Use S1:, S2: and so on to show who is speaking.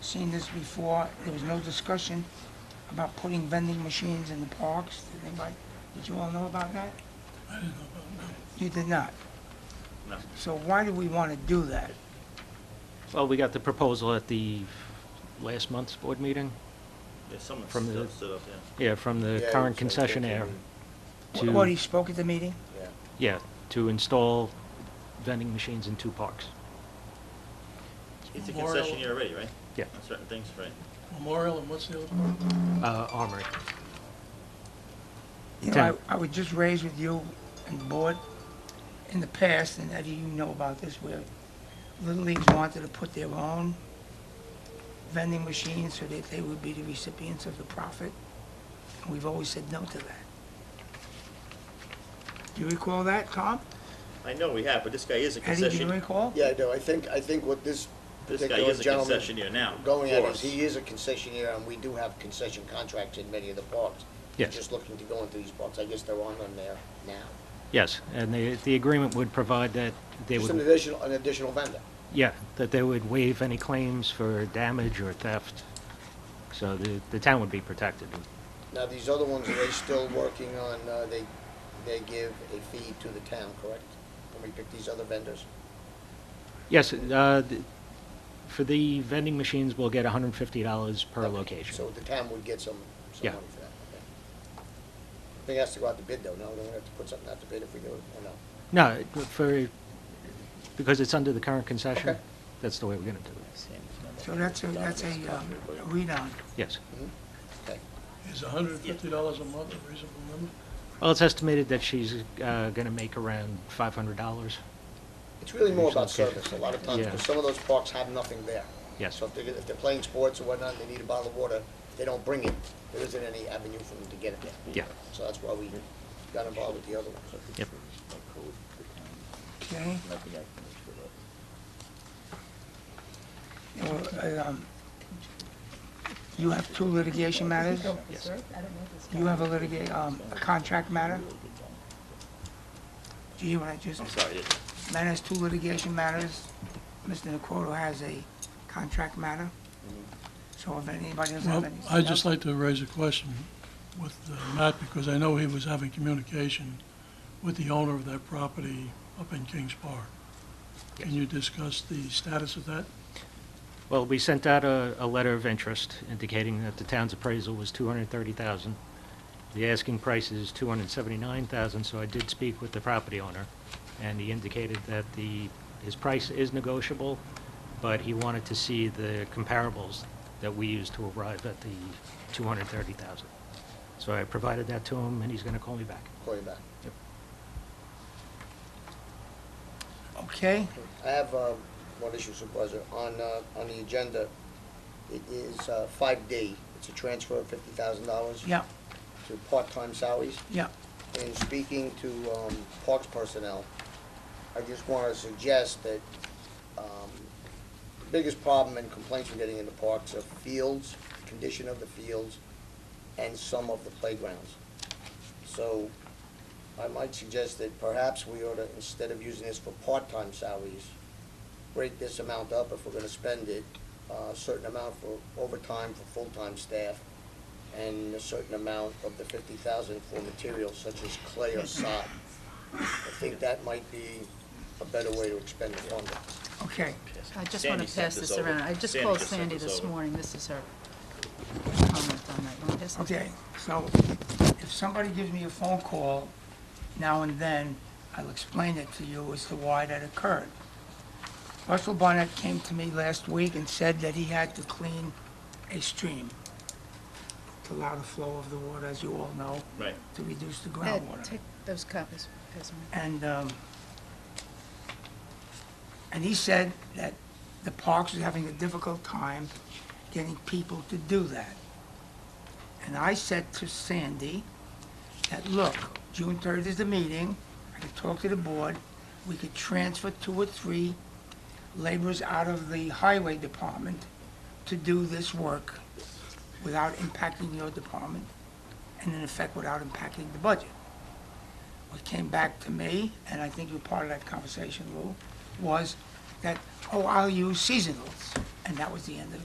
S1: seen this before. There was no discussion about putting vending machines in the parks. Did anybody, did you all know about that? I didn't know about that. You did
S2: No.
S1: not? So why do we want to do that?
S3: Well, we got the proposal at the last month's board meeting,
S2: Yeah, someone
S3: From the-
S2: stood stood up, yeah.
S3: yeah, from the
S4: Yeah,
S3: current
S4: he was like,
S3: concessionaire
S1: Wh- What, he
S3: to,
S1: spoke at the meeting?
S4: Yeah.
S3: yeah, to install vending machines in two parks.
S2: It's a
S5: Memorial-
S2: concession year already, right?
S3: Yeah.
S2: On certain things, right?
S5: Memorial and what's the other one?
S3: Uh, Armory.
S1: You know, I, I would just raise with you and the board, in the past, and Eddie, you know about this, where Little Leagues wanted to put their own vending machines so that they would be the recipients of the profit. And We've always said no to that. Do you recall that, Tom?
S2: I know we have, but this guy is a
S1: Eddie, do you
S2: concession,
S1: recall?
S4: Yeah, I do. I think, I think what this
S2: this guy
S4: particular
S2: is a
S4: gentleman
S2: concession year now.
S4: going
S2: for
S4: at is,
S2: us.
S4: he is a concessionaire, and we do have concession contracts in many of the parks. He's
S3: Yes.
S4: Just looking to go into these parks. I guess there aren't on there now.
S3: Yes, and the, the agreement would provide that they
S4: Just an
S3: would,
S4: additional, an additional vendor.
S3: yeah, that they would waive any claims for damage or theft. So the, the town would be protected.
S4: Now, these other ones, are they still working on, uh, they, they give a fee to the town, correct? When we pick these other vendors?
S3: Yes, uh, th- for the vending machines, we'll get $150 per
S4: Okay.
S3: location.
S4: So the town would get some, some
S3: Yeah.
S4: money for that, okay. They has to go out to bid, though, no? They're gonna have to put something out to bid if we do it, or no?
S3: No, it- for, because it's under the current concession,
S4: Okay.
S3: that's the way we're going to do it.
S1: So that's a, that's a, um, a read-on.
S3: Yes.
S4: Okay.
S5: Is hundred and fifty dollars a month a reasonable number?
S3: Well, it's estimated that she's going to make around $500.
S4: It's really more
S3: There's
S4: about
S3: some cases
S4: service,
S3: like
S4: a lot of
S3: that.
S4: times,
S3: Yeah.
S4: because some of those parks have nothing there.
S3: Yes.
S4: So if they're, if they're playing sports or whatnot, they need a bottle of water, if they don't bring it, there isn't any avenue for them to get it there.
S3: Yeah. Mm-hmm.
S4: So that's why we got involved with the other ones.
S3: Yep.
S1: Okay, Well, um, you have two litigation matters?
S3: Yes.
S1: You have a litigate, um, a contract matter? Do you hear what I just,
S2: I'm sorry, I didn't.
S1: man has two litigation matters. Mr. Nacoro has a contract matter. So if anybody doesn't have
S5: Well,
S1: any.
S5: I'd just like to raise a question with uh, Matt, because I know he was having communication with the owner of that property up in Kings Park. Can you discuss the status of that?
S3: Well, we sent out a, a letter of interest indicating that the town's appraisal was 230,000. The asking price is 279,000, so I did speak with the property owner, and he indicated that the, his price is negotiable, but he wanted to see the comparables that we used to arrive at the 230,000. So I provided that to him, and he's going to call me back.
S4: Call you back.
S1: Okay,
S4: I have, uh, one issue Supervisor, on, uh, on the agenda, it is, uh, five D, it's a transfer of fifty thousand dollars.
S1: yeah,
S4: To part-time salaries.
S1: yeah.
S4: in speaking to um, Parks personnel, I just want to suggest that um, the biggest problem and complaints we're getting in the parks are fields, condition of the fields, and some of the playgrounds. So I might suggest that perhaps we ought to, instead of using this for part-time salaries, break this amount up if we're going to spend it, uh, a certain amount for overtime for full-time staff, and a certain amount of the fifty thousand for materials such as clay or sod. I think that might be a better way to expend the funding.
S1: Okay,
S6: I just want
S2: Sandy
S6: to
S2: sent
S6: pass this
S2: over.
S6: around. I just
S2: Sandy
S6: called
S2: sent
S6: Sandy this
S2: over.
S6: morning. This is her comment on that. You want to pass this?
S1: okay. So if somebody gives me a phone call now and then, I'll explain it to you as to why that occurred. Russell Barnett came to me last week and said that he had to clean a stream to allow the flow of the water, as you all know.
S2: Right.
S1: to reduce the
S6: Ed,
S1: groundwater.
S6: Take those copies. Pass them around.
S1: And, um, and he said that the parks was having a difficult time getting people to do that. And I said to Sandy that, look, June third is the meeting, I could talk to the board, we could transfer two or three laborers out of the highway department to do this work without impacting your department, and in effect, without impacting the budget what came back to me, and I think you were part of that conversation, Lou, was that, oh, I'll use seasonals. And that was the end of